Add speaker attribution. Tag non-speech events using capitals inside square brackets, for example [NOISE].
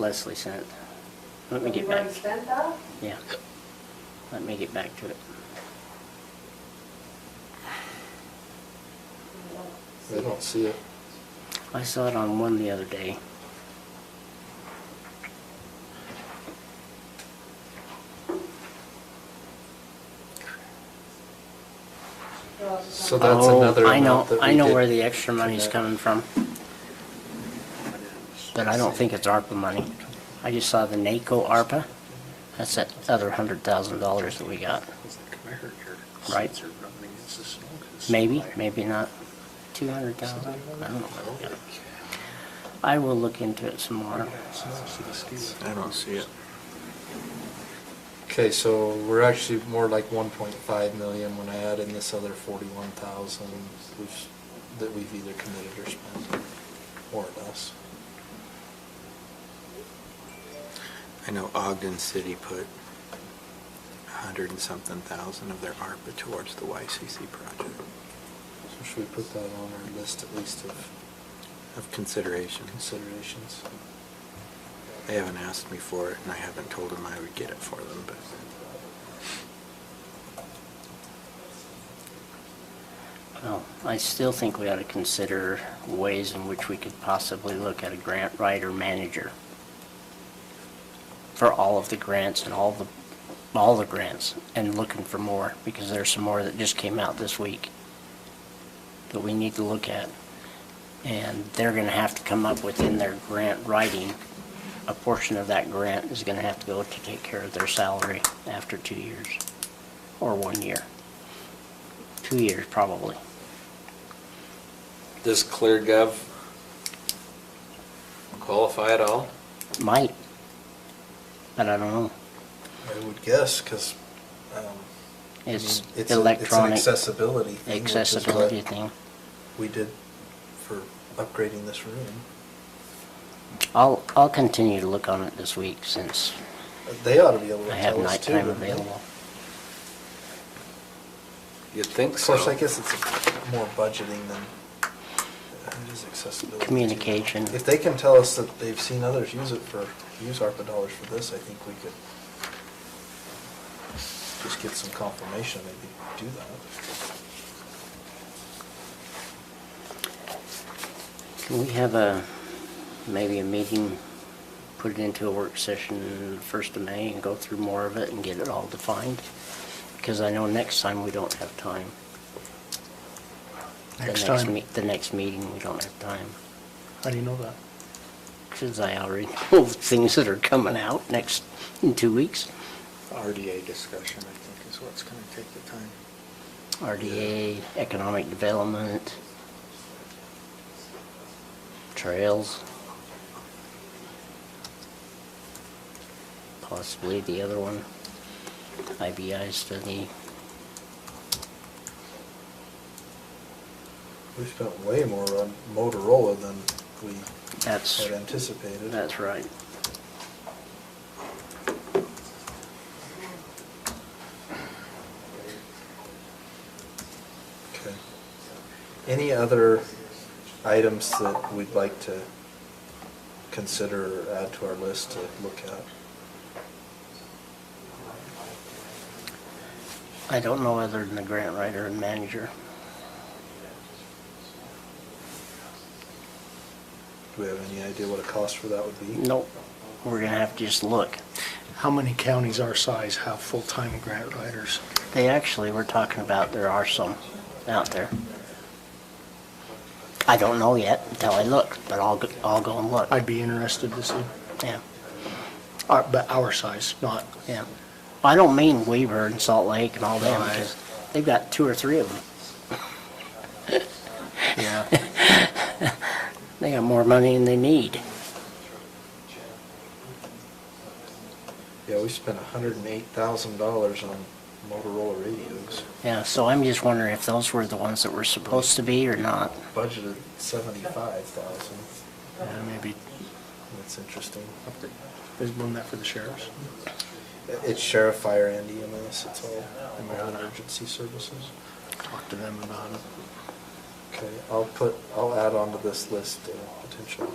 Speaker 1: Leslie sent. Let me
Speaker 2: You
Speaker 1: get back,
Speaker 2: already spent that?
Speaker 1: yeah. Let me get back to it.
Speaker 3: I don't see it.
Speaker 1: I saw it on one the other day.
Speaker 3: So that's
Speaker 1: Oh,
Speaker 3: another
Speaker 1: I know,
Speaker 3: amount that
Speaker 1: I
Speaker 3: we
Speaker 1: know
Speaker 3: did
Speaker 1: where the extra money's
Speaker 3: commit.
Speaker 1: coming from, but I don't think it's ARPA money. I just saw the NACO ARPA. That's that other hundred thousand dollars that we got. Right. Maybe, maybe not. Two hundred thousand? I don't know what we got. I will look into it some more.
Speaker 4: I don't see it.
Speaker 3: Okay, so we're actually more like one point five million when I add in this other forty-one thousand, which, that we've either committed or spent, more or less.
Speaker 4: I know Ogden City put a hundred and something thousand of their ARPA towards the YCC project
Speaker 3: So should we put that on our list at least of
Speaker 4: of consideration.
Speaker 3: considerations?
Speaker 4: They haven't asked me for it, and I haven't told them I would get it for them, but
Speaker 1: Well, I still think we ought to consider ways in which we could possibly look at a grant writer manager for all of the grants and all the, all the grants, and looking for more, because there's some more that just came out this week that we need to look at. And they're gonna have to come up within their grant writing, a portion of that grant is gonna have to go to take care of their salary after two years, or one year. Two years, probably.
Speaker 5: Does ClearGov qualify at all?
Speaker 1: Might. But I don't know.
Speaker 3: I would guess, because, um, I mean,
Speaker 1: It's
Speaker 3: it's, a- it's an
Speaker 1: electronic
Speaker 3: accessibility thing. which is what
Speaker 1: accessibility thing.
Speaker 3: We did for upgrading this room.
Speaker 1: I'll, I'll continue to look on it this week since
Speaker 3: They ought to be able to
Speaker 1: I have
Speaker 3: tell us too.
Speaker 1: nighttime
Speaker 3: wouldn't they?
Speaker 1: available.
Speaker 5: You'd think
Speaker 3: Of
Speaker 5: so.
Speaker 3: course, I guess it's more budgeting than, uh, it is accessibility. too.
Speaker 1: Communication.
Speaker 3: If they can tell us that they've seen others use it for, use ARPA dollars for this, I think we could just get some confirmation, maybe do that.
Speaker 1: Can we have a, maybe a meeting, put it into a work session first of May and go through more of it and get it all defined? Because I know next time we don't have time. The
Speaker 6: Next time.
Speaker 1: me- The next meeting, we don't have time.
Speaker 6: How do you know that?
Speaker 1: Since I already [LAUGHS] know things that are coming out next, in two weeks.
Speaker 4: RDA discussion, I think, is what's gonna take the time.
Speaker 1: RDA, economic development, trails. Possibly the other one, IBI study.
Speaker 3: We spent way more on Motorola than we
Speaker 1: That's,
Speaker 3: had anticipated.
Speaker 1: that's right.
Speaker 3: Okay. Any other items that we'd like to consider or add to our list to look at?
Speaker 1: I don't know other than the grant writer and manager.
Speaker 3: Do we have any idea what a cost for that would be?
Speaker 1: Nope, we're gonna have to just look.
Speaker 6: How many counties our size have full-time grant writers?
Speaker 1: They actually were talking about there are some out there. I don't know yet until I look, but I'll, go- I'll go and look.
Speaker 6: I'd be interested to see,
Speaker 1: Yeah.
Speaker 6: Our- but our size, not,
Speaker 1: Yeah. I don't mean Weaver and Salt Lake and all them,
Speaker 6: Right.
Speaker 1: because they've got two or three of them.
Speaker 6: [LAUGHS] yeah.
Speaker 1: [LAUGHS] They got more money than they need.
Speaker 3: Yeah, we spent hundred and eight thousand dollars on Motorola radios,
Speaker 1: Yeah, so I'm just wondering if those were the ones that were supposed to be or not.
Speaker 3: budgeted seventy-five thousand.
Speaker 6: Yeah, Maybe,
Speaker 3: That's interesting.
Speaker 6: up to- is one that for the sheriffs?
Speaker 3: It's sheriff, fire, and EMS, it's all American Emergency Services.
Speaker 6: Talk to them about it.
Speaker 3: Okay, I'll put, I'll add onto this list uh, potential